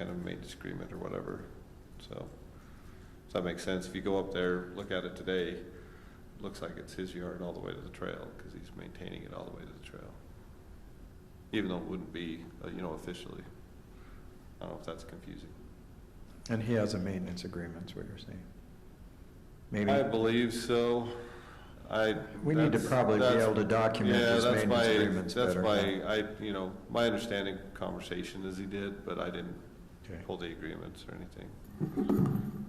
kind of maintenance agreement or whatever, so. Does that make sense? If you go up there, look at it today, it looks like it's his yard all the way to the trail, because he's maintaining it all the way to the trail. Even though it wouldn't be, uh, you know, officially. I don't know if that's confusing. And he has a maintenance agreement, is what you're saying? Maybe, I believe so. I. we need to that's- probably be that's- able to document Yeah, his that's my, maintenance agreements that's better. my, I, you know, my understanding conversation is he did, but I didn't Okay. pull the agreements or anything.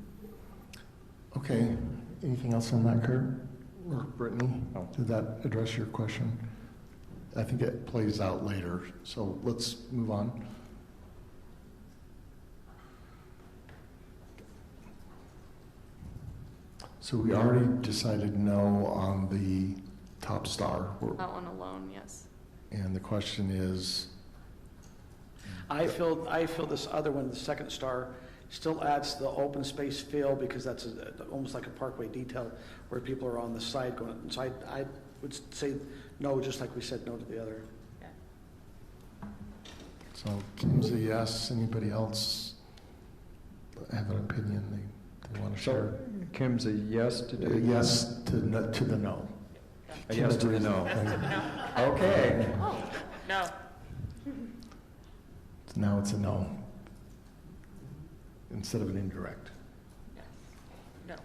Okay, anything else on that, Kurt or Brittany? No. Did that address your question? I think it plays out later, so let's move on. So we already decided no on the top star, That one alone, yes. and the question is, I feel, I feel this other one, the second star, still adds to the open space feel because that's a- almost like a parkway detail where people are on the side going, so I, I would say no, just like we said no to the other. so Kim's a yes, anybody else have an opinion they, they want to share? So Kim's a yes to A do? Yes to, no- to the no. A yes to the no. Okay. No. So Now it's a no. Instead of an indirect. No.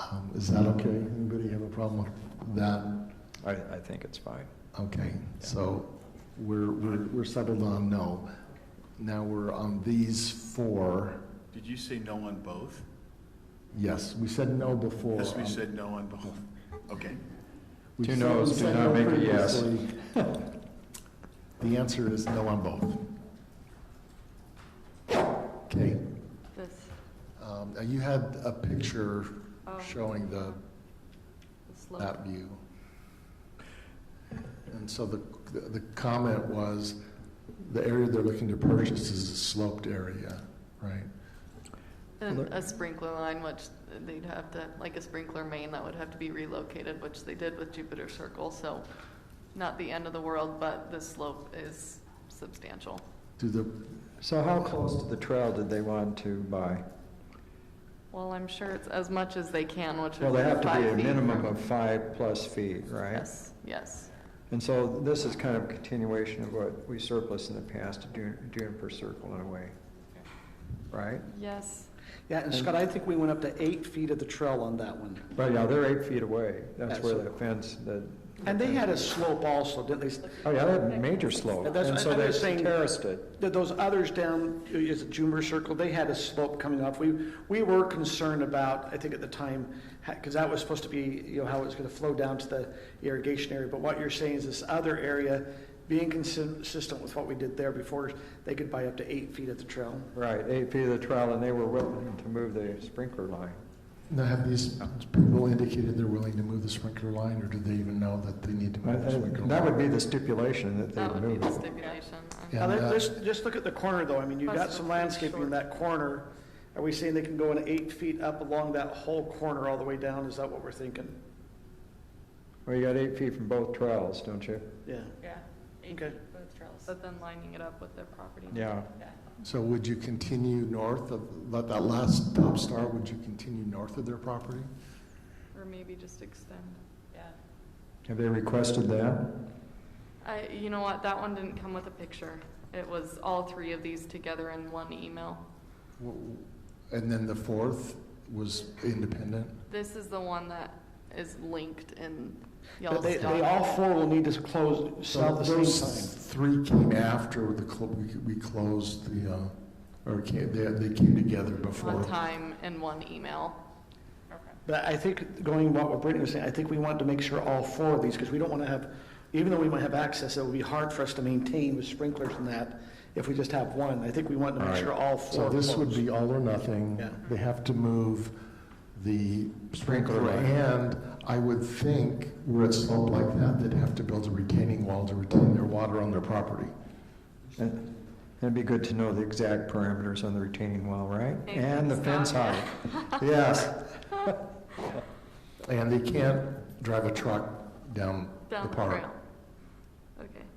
Um, Is that okay? Anybody have a problem with that? I, I think it's fine. Okay, so we're, we're we're settled on no. Now we're on these four. Did you say no on both? Yes, we said no before. Yes, we Um, said no on both. Okay. we Two said- noes we do said not no make a yes. previously. The answer is no on both. Okay, This, um, now you had a picture oh, showing the the slope. that view. And so the, the comment was, the area they're looking to purchase is a sloped area, right? And a sprinkler line, which they'd have to, like a sprinkler main, that would have to be relocated, which they did with Jupiter Circle, so not the end of the world, but the slope is substantial. Do the, So how close to the trail did they want to buy? Well, I'm sure it's as much as they can, which Well, would be they have to five be a feet minimum from- of five plus feet, right? Yes, yes, And so this is kind of a continuation of what we surplus in the past, doing, doing per circle in a way, right? yes. Yeah, and Scott, I think we went up to eight feet of the trail on that one. But yeah, they're eight feet away. That's Yeah, where so- the fence, the. And they had a slope also, didn't they? Oh, yeah, they had a major slope. And that's- And so I'm they just saying- terraced it. Th- Those others down, uh, is it Juniper Circle, they had a slope coming off. We, we were concerned about, I think at the time, because that was supposed to be, you know, how it was going to flow down to the irrigation area. But what you're saying is this other area being consi- consistent with what we did there before, they could buy up to eight feet at the trail. Right, eight feet of the trail, and they were willing to move the sprinkler line. now have these people indicated they're willing to move the sprinkler line, or do they even know that they need to I- I- move the sprinkler line? That would be the stipulation that That they would be move the it. stipulation. Yeah. And Now, uh, let- that- just, just look at the corner though, I mean, you've got Plus some it's pretty landscaping in short. that corner. Are we saying they can go in eight feet up along that whole corner all the way down? Is that what we're thinking? Well, you got eight feet from both trails, don't you? Yeah. Yeah. Okay. Both trails. But then lining it up with their property. Yeah. So would you continue north of, let that last top star, would you continue north of their property? Or maybe just extend. Yeah. Have they requested that? I, you know what, that one didn't come with a picture. It was all three of these together in one email. W- And then the fourth was independent? This is the one that is linked in But they, they Yellowstone. all four will need to close, So south at the those same time. three came after the, cl- we, we closed the, uh, or came, they, they came together before. One time in one email. Okay. But I think, going what what Brittany was saying, I think we want to make sure all four of these, because we don't want to have, even though we might have access, it would be hard for us to maintain with sprinklers and that if we just have one. I think we want to make sure all four. So this would close. be all or nothing. Yeah. They have to move the sprinkler. And I would think where it's sloped like that, they'd have to build a retaining wall to retain their water on their property. And It'd be good to know the exact parameters on the retaining wall, right? Hey, And the fence stop. height. Yes. And they can't drive a truck down the Down the park. trail. Okay,